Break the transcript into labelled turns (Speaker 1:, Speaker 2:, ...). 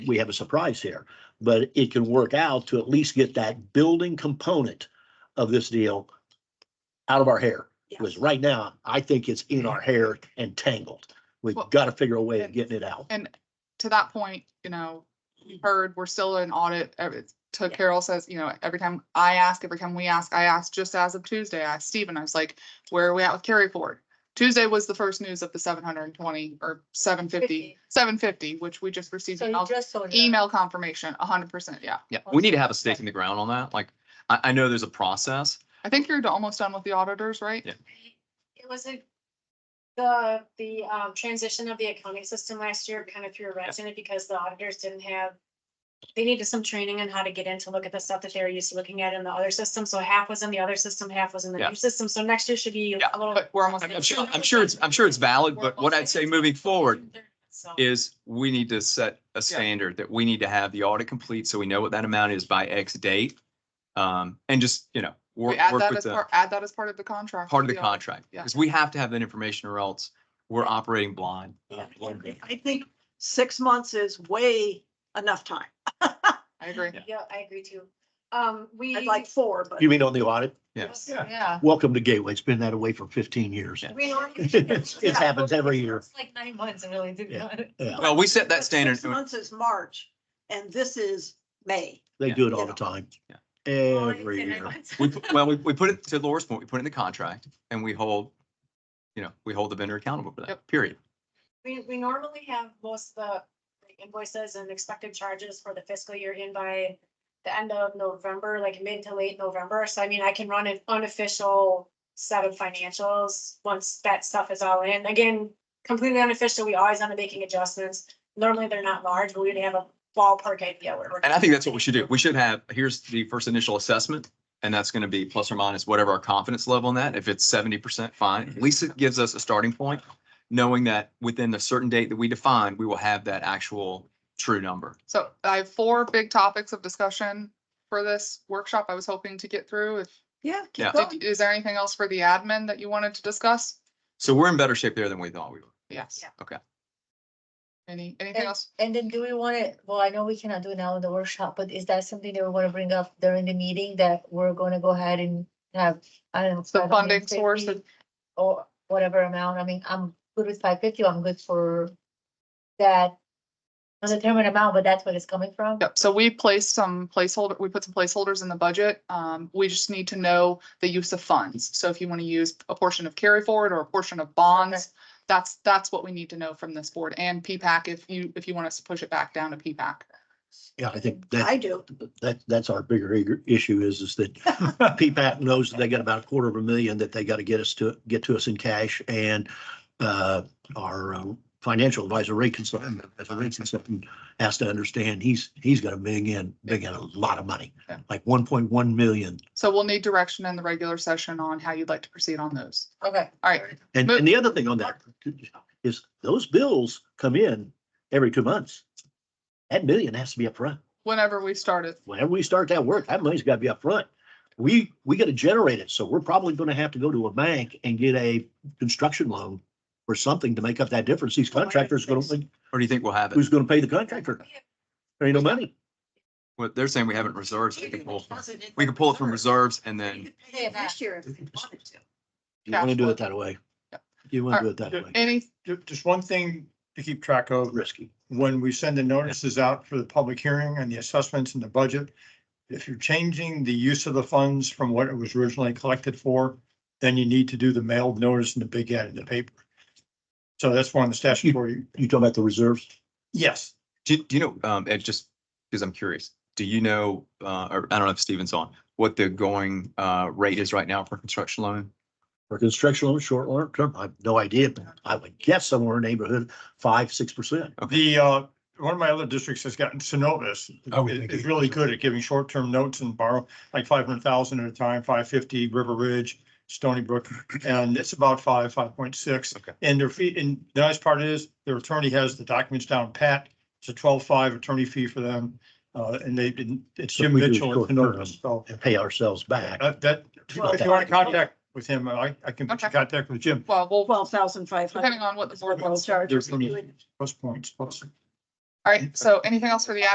Speaker 1: we have a surprise here, but it can work out to at least get that building component of this deal out of our hair. Because right now, I think it's in our hair and tangled. We've
Speaker 2: Well-
Speaker 1: got to figure a way of getting it out.
Speaker 2: And to that point, you know, you heard, we're still in audit. ev- it's- To
Speaker 3: Yeah.
Speaker 2: Carol says, you know, every time I ask, every time we ask, I asked just as of Tuesday, I asked Steven, I was like, where are we at with carry forward? Tuesday was the first news of the seven hundred and twenty or seven fifty,
Speaker 3: Fifty.
Speaker 2: seven fifty, which we just received
Speaker 3: So
Speaker 2: an
Speaker 3: you just saw.
Speaker 2: email confirmation, hundred percent, yeah.
Speaker 4: Yeah, we need to have a
Speaker 3: Also-
Speaker 4: stake in the ground on that. Like, I, I know there's a process.
Speaker 2: I think you're almost done with the auditors, right?
Speaker 4: Yeah.
Speaker 3: It was a, the, the um, transition of the accounting system last year kind of threw a wrench in it because the auditors didn't have. They needed some training on how to get in to look at the stuff that they were used to looking at in the other system. So half was in the other system, half was in the
Speaker 4: Yeah.
Speaker 3: new system. So next year should be a little.
Speaker 2: But we're almost,
Speaker 4: I'm I'm sure, I'm sure it's, I'm sure it's valid, but what I'd say moving forward
Speaker 3: So-
Speaker 4: is we need to set a standard that we need to have the audit complete, so we know what that amount is by X date. Um, and just, you know,
Speaker 2: we
Speaker 4: work,
Speaker 2: add
Speaker 4: work
Speaker 2: that
Speaker 4: with
Speaker 2: as
Speaker 4: the,
Speaker 2: part, add that as part of the contract.
Speaker 4: part of the
Speaker 2: with audit.
Speaker 4: contract,
Speaker 2: Yeah.
Speaker 4: because we have to have that information or else we're operating blind.
Speaker 1: Uh, one day.
Speaker 5: I think six months is way enough time.
Speaker 2: I agree.
Speaker 4: Yeah.
Speaker 3: Yeah, I agree too. Um, we.
Speaker 5: I'd like four, but
Speaker 1: You mean on the audit?
Speaker 4: Yes.
Speaker 2: Yeah.
Speaker 1: Welcome to Gateway. It's been that away for fifteen years.
Speaker 4: Yeah.
Speaker 3: We normally-
Speaker 1: It happens every year.
Speaker 3: It's Like nine months, it really did
Speaker 1: Yeah.
Speaker 3: not.
Speaker 1: Yeah,
Speaker 2: Oh,
Speaker 4: Well, we set that
Speaker 5: Six
Speaker 4: standard.
Speaker 5: Months is March and this is May.
Speaker 1: They do it all the time.
Speaker 4: Yeah.
Speaker 1: Every year.
Speaker 4: We, put- well, we, we put it to Laura's point, we put it in the contract and we hold, you know, we hold the vendor accountable for that,
Speaker 2: Yep.
Speaker 4: period.
Speaker 3: We, we normally have most of the invoices and expected charges for the fiscal year in by the end of November, like mid to late November. So I mean, I can run an unofficial set of financials once that stuff is all in. Again, completely unofficial. We always end up making adjustments. Normally, they're not large, but we'd have a ballpark idea where we're.
Speaker 4: And I think that's what we should do. We should have, here's the first initial assessment, and that's gonna be plus or minus whatever our confidence level on that. If it's seventy percent, fine. At least it gives us a starting point, knowing that within the certain date that we define, we will have that actual true number.
Speaker 2: So I have four big topics of discussion for this workshop I was hoping to get through. If,
Speaker 5: Yeah. keep
Speaker 4: Yeah.
Speaker 5: going.
Speaker 2: did- is there anything else for the admin that you wanted to discuss?
Speaker 4: So we're in better shape there than we thought we were.
Speaker 2: Yes.
Speaker 3: Yeah.
Speaker 4: Okay.
Speaker 2: Any, anything else?
Speaker 6: And then do we want to, well, I know we cannot do it now in the workshop, but is that something that we want to bring up during the meeting that we're going to go ahead and have, I don't know.
Speaker 2: The funding source
Speaker 6: 550 Or whatever amount. I mean, I'm good with five fifty. I'm good for that. Undetermined amount, but that's what it's coming from.
Speaker 2: Yep, so we placed some placeholder, we put some placeholders in the budget. Um, we just need to know the use of funds. So if you want to use a portion of carry forward or a portion of bonds, that's, that's what we need to know from this board and P-PAC if you, if you want us to push it back down to P-PAC.
Speaker 1: Yeah, I think that.
Speaker 5: I do.
Speaker 1: that, that's our bigger ig- issue is, is that PPAC knows that they got about a quarter of a million that they got to get us to, get to us in cash and uh, our um, financial advisor, Ray Consultant, as a Ray Consultant, has to understand, he's, he's got to bring in, bring in a lot of money,
Speaker 2: Yeah.
Speaker 1: like one point one million.
Speaker 2: So we'll need direction in the regular session on how you'd like to proceed on those.
Speaker 6: Okay.
Speaker 2: All right,
Speaker 1: And,
Speaker 2: But-
Speaker 1: and the other thing on that is those bills come in every two months. That million has to be upfront.
Speaker 2: whenever we start it.
Speaker 1: whenever we start that work, that money's gotta be upfront. We, we gotta generate it, so we're probably gonna have to go to a bank and get a construction loan or something to make up that difference. These contractors gonna,
Speaker 4: Or do you think we'll have it?
Speaker 1: who's gonna pay the contractor? There ain't no money.
Speaker 4: What they're saying, we haven't reserves. We can pull- we can pull it from reserves and
Speaker 5: You
Speaker 4: then,
Speaker 5: could pay it This year if you wanted to.
Speaker 1: You wanna do it that way. You wanna do it that way.
Speaker 2: Any,
Speaker 7: Ju- Just one thing to keep track of,
Speaker 1: Risky.
Speaker 7: when we send the notices out for the public hearing and the assessments and the budget, if you're changing the use of the funds from what it was originally collected for, then you need to do the mailed notice and the big ad in the paper. So that's one of the statutory,
Speaker 1: You talking about the reserves?
Speaker 7: yes,
Speaker 4: do, do you know, um, Ed, just because I'm curious, do you know, uh, or I don't know if Steven's on, what the going, uh, rate is right now for construction loan?
Speaker 1: For construction loan, short loan term, I have no idea, but I would guess somewhere in the neighborhood, five, six percent.
Speaker 7: the, uh, one of my other districts has gotten Synovus.
Speaker 1: Oh, we
Speaker 7: is-
Speaker 1: think
Speaker 7: Is
Speaker 1: it-
Speaker 7: really good at giving short-term notes and borrow like five hundred thousand at a time, five fifty, River Ridge, Stony Brook, and it's about five, five point six.
Speaker 4: Okay.
Speaker 7: And their fee, and the nice part is their attorney has the documents down pat. It's a twelve-five attorney fee for them. Uh, and they didn't, it's
Speaker 1: So
Speaker 7: Jim
Speaker 1: we do
Speaker 7: Mitchell. at
Speaker 1: short-term.
Speaker 7: Synovus, So
Speaker 1: And pay ourselves back.
Speaker 7: that, that, if you want to contact with him, I, I can put you in
Speaker 2: Okay.
Speaker 7: contact with Jim.
Speaker 2: well, we'll,
Speaker 5: Twelve thousand five
Speaker 2: depending
Speaker 5: hundred.
Speaker 2: on what the board wants.
Speaker 5: charge.
Speaker 7: There's some- Plus points, plus.
Speaker 2: All right, so anything else for the